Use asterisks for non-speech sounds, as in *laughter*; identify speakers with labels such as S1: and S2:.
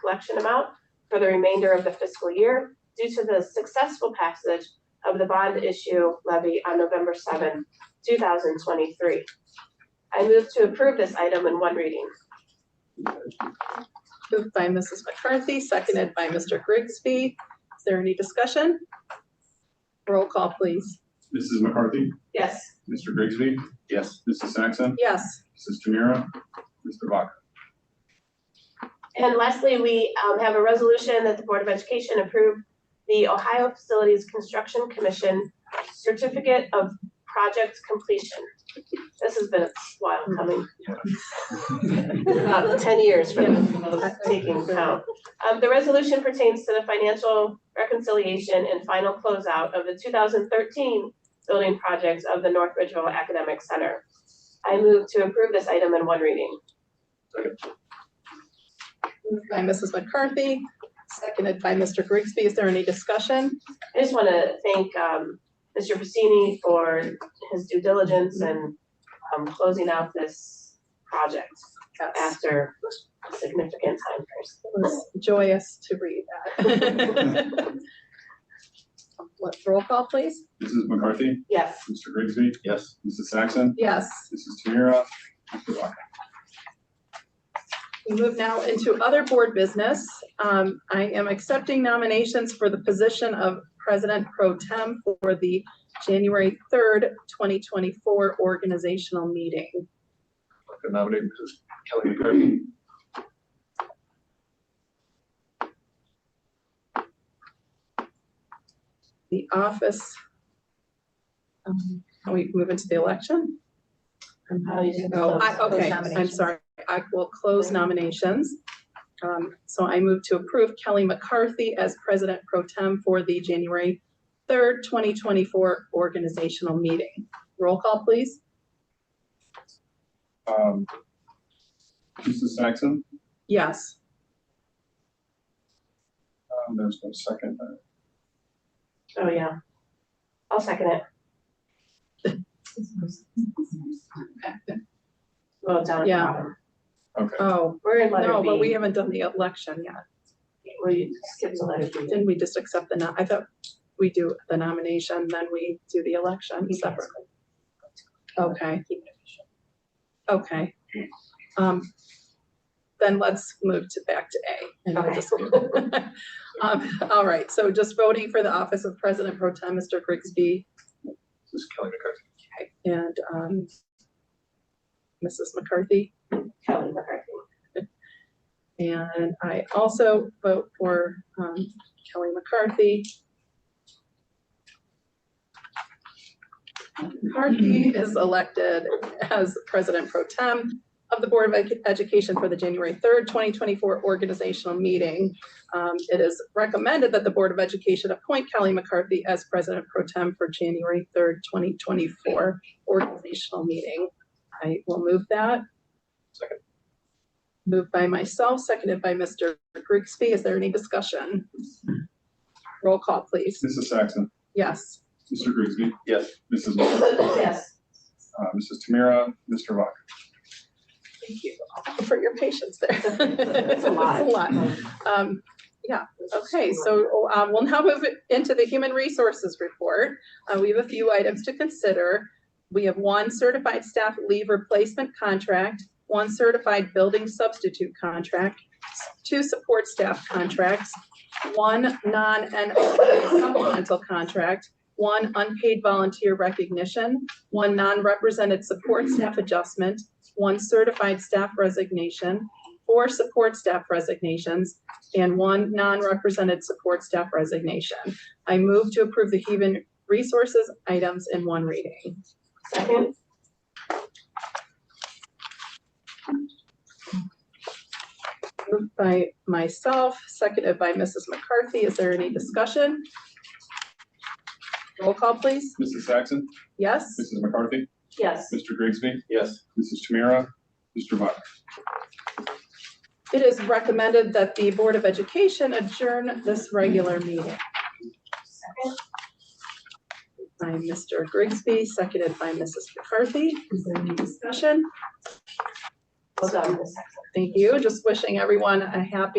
S1: collection amount for the remainder of the fiscal year due to the successful passage of the bond issue levy on November 7, thousand twenty-three. I move to approve this item in one reading.
S2: Moved by Mrs. McCarthy, seconded by Mr. Grigsby. Is there any discussion? Roll call, please.
S3: Mrs. McCarthy,
S1: Yes.
S3: Mr. Grigsby,
S4: Yes.
S3: Mrs. Saxon,
S2: Yes,
S3: Mrs. Tamira, Mr. Vaca.
S1: And lastly, we um, have a resolution that the Board of Education approved the Ohio Facilities Construction Commission Certificate of Project Completion. This has been a while coming. About ten years for the taking count. Um, the resolution pertains to the financial reconciliation and final closeout of the two thousand thirteen building projects of the North Ridgeville Academic Center. I move to approve this item in one reading.
S2: moved by Mrs. McCarthy, seconded by Mr. Grigsby. Is there any discussion?
S1: I just want to thank um, Mr. Pacini for his due diligence and um, closing out this project
S2: Yes,
S1: after a significant time
S2: it was joyous to read that. *laughs* Let's roll call, please.
S3: Mrs. McCarthy,
S1: first. Yes,
S3: Mr. Grigsby,
S4: Yes.
S3: Mrs. Saxon,
S2: Yes,
S3: Mrs. Tamira, Mr. Vaca.
S2: we move now into other board business. Um, I am accepting nominations for the position of President Pro Tem for the January third, twenty twenty-four organizational meeting.
S4: I could nominate Mrs. Kelly McCarthy.
S2: the office. Um, Can we move into the election?
S1: Oh, you didn't
S2: Oh,
S1: close-
S2: I,
S1: close
S2: okay, I'm
S1: nominations.
S2: sorry. I will close nominations. Um, So I move to approve Kelly McCarthy as president pro tem for the January third, twenty twenty-four organizational meeting. Roll call, please.
S3: Um, Mrs. Saxon,
S2: Yes,
S3: um, there's no second.
S1: oh, yeah. I'll second it. Well, down at the
S2: Yeah.
S1: bottom.
S3: Okay,
S2: oh,
S1: We're in letter
S2: no, but we
S1: B.
S2: haven't done the election yet.
S1: We skipped the letter B.
S2: Didn't we just accept the, no- I thought we do the nomination, then we do the election separately? Okay. Okay. Um, Then let's move to back to A. and we'll
S1: Okay.
S2: just- *laughs* Um, All right, so just voting for the office of President Pro Tem, Mr. Grigsby,
S4: Mrs. Kelly McCarthy.
S2: and um, Mrs. McCarthy.
S1: Kelly McCarthy.
S2: And I also vote for um, Kelly McCarthy. McCarthy is elected as President Pro Tem of the Board of Edu- Education for the January 3rd, 2024 organizational meeting. Um, It is recommended that the Board of Education appoint Kelly McCarthy as President Pro Tem for January 3rd, 2024 organizational meeting. I will move that.
S4: Second.
S2: Moved by myself, seconded by Mr. Grigsby. Is there any discussion? Roll call, please.
S3: Mrs. Saxon,
S2: Yes.
S3: Mr. Grigsby,
S4: Yes.
S3: Mrs. McCarthy,
S2: *laughs*
S1: Yes.
S3: uh, Mrs. Tamira, Mr. Vaca.
S2: Thank you for your patience there.
S1: That's a
S2: *laughs*
S1: lot.
S2: It's
S1: *laughs*
S2: Um, yeah, okay, so, um, we'll now move into the human resources report. Uh, we have a few items to consider. We have one certified staff leave replacement contract, one certified building substitute contract, two support staff contracts, one non-NOA supplemental contract, one unpaid volunteer recognition, one non-represented support staff adjustment, one certified staff resignation, four support staff resignations, and one non-represented support staff resignation. I move to approve the human resources items in one reading.
S1: Second?
S2: Moved by myself, seconded by Mrs. McCarthy. Is there any discussion? Roll call, please.
S3: Mrs. Saxon,
S2: Yes?
S3: Mrs. McCarthy,
S1: Yes.
S3: Mr. Grigsby,
S4: Yes.
S3: Mrs. Tamira, Mr. Vaca.
S2: It is recommended that the Board of Education adjourn this regular meeting. By Mr. Grigsby, seconded by Mrs. McCarthy. Is there any discussion?
S1: Well done, Miss
S2: Thank you. Just wishing everyone a happy